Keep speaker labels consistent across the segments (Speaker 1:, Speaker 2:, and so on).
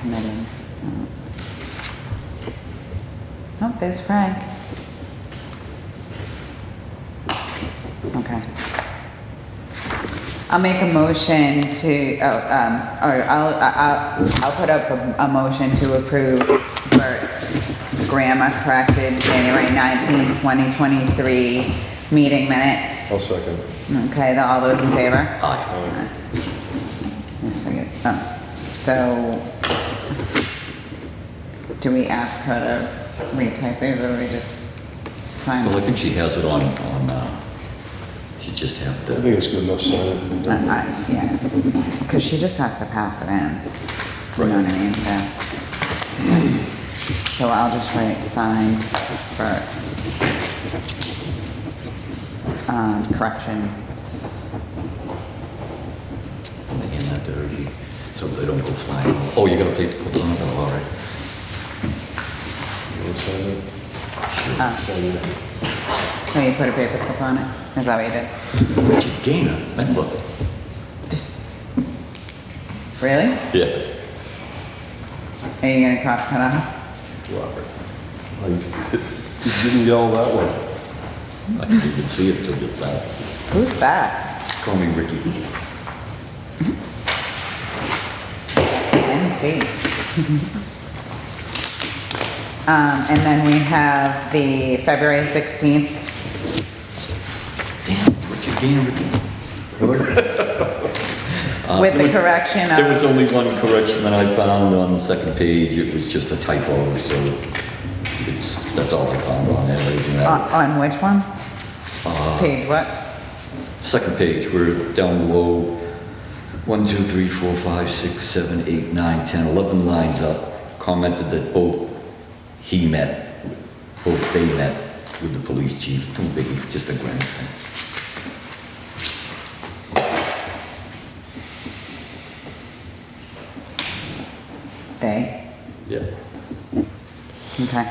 Speaker 1: committing. Oh, there's Frank. Okay. I'll make a motion to, oh, um, or I'll, I'll, I'll put up a, a motion to approve Bert's grammar corrected January 19, 2023 meeting minutes.
Speaker 2: I'll second. Uh,
Speaker 1: Okay, the- all those in favor?
Speaker 2: Aye.
Speaker 1: Let's forget, oh, so, do we ask her to retype it, or we just sign
Speaker 3: Well, I
Speaker 1: it?
Speaker 3: think she has it on, on, uh, she just have
Speaker 2: I
Speaker 3: to,
Speaker 2: think it's good enough signing.
Speaker 1: Uh, I- Yeah, because she just has to pass it in. You know what I mean, so. So I'll just write signed Burke's. Um, corrections.
Speaker 3: and hand that to her, she, so they don't go flying. Oh, you're gonna take, put them on, oh, all right.
Speaker 2: I'll sign it.
Speaker 1: Uh.
Speaker 2: Sign it.
Speaker 1: So you put a paper clip on it, is that what you did?
Speaker 3: Richard Gainer, remember?
Speaker 1: Really?
Speaker 3: Yeah.
Speaker 1: Are you gonna cross cut off?
Speaker 3: Robert,
Speaker 2: Oh, You you didn't yell that one.
Speaker 3: I can't even see it till this loud.
Speaker 1: Who's that?
Speaker 3: Call me Ricky.
Speaker 1: I didn't see. Um, and then we have the February sixteenth
Speaker 3: Damn, Richard Gainer, Ricky.
Speaker 1: with the correction of.
Speaker 3: There Uh, was only one correction that I found on the second page, it was just a typo, so it's, that's all I found on that, everything
Speaker 1: On,
Speaker 3: that.
Speaker 1: on which one?
Speaker 3: Uh,
Speaker 1: Page what?
Speaker 3: Second page, we're down below, one, two, three, four, five, six, seven, eight, nine, ten, eleven lines up, commented that both he met, both they met with the police chief, too big, just a grand thing.
Speaker 1: They,
Speaker 3: Yeah.
Speaker 1: okay.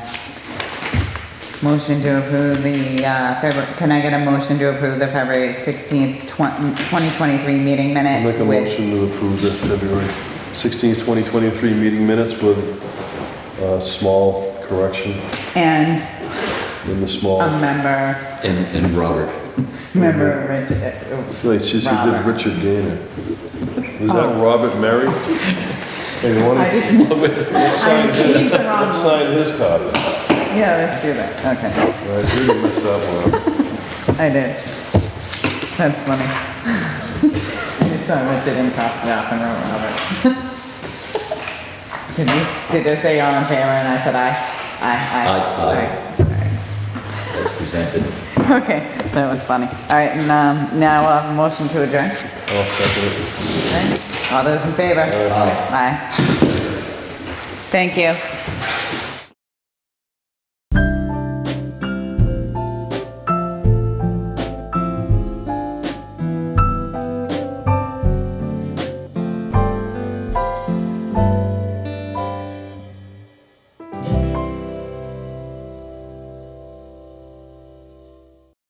Speaker 1: Motion to approve the, uh, February, can I get a motion to approve the February sixteenth, twenty twenty-three meeting
Speaker 2: I'll
Speaker 1: minutes
Speaker 2: Make a
Speaker 1: with?
Speaker 2: motion to approve the February 16th, 2023 meeting minutes with a small correction
Speaker 1: And
Speaker 2: in the small.
Speaker 3: Oh.
Speaker 1: a member,
Speaker 3: And, and Robert,
Speaker 1: member, Rich- uh,
Speaker 2: I feel like she said did
Speaker 1: Robert. Oh.
Speaker 2: Richard Gainer. Is that Robert Mary? Hey, you
Speaker 1: I
Speaker 2: wanna-
Speaker 1: didn't,
Speaker 2: Let's sign
Speaker 1: I um, changed
Speaker 2: his,
Speaker 1: the wrong
Speaker 2: let's
Speaker 1: one.
Speaker 2: sign his copy.
Speaker 1: yeah, let's do that, okay,
Speaker 2: I really messed that one up.
Speaker 1: I did. That's funny. I just saw Richard and crossed it off and wrote Robert. Did you, did they say all in favor and I said aye?
Speaker 3: Aye, aye.
Speaker 1: Aye, aye. Aye.
Speaker 3: as presented.
Speaker 1: Okay, that was funny. All right, and um, now we'll have a motion to adjourn.
Speaker 2: I'll second it.
Speaker 1: All those in favor? Aye. Thank you.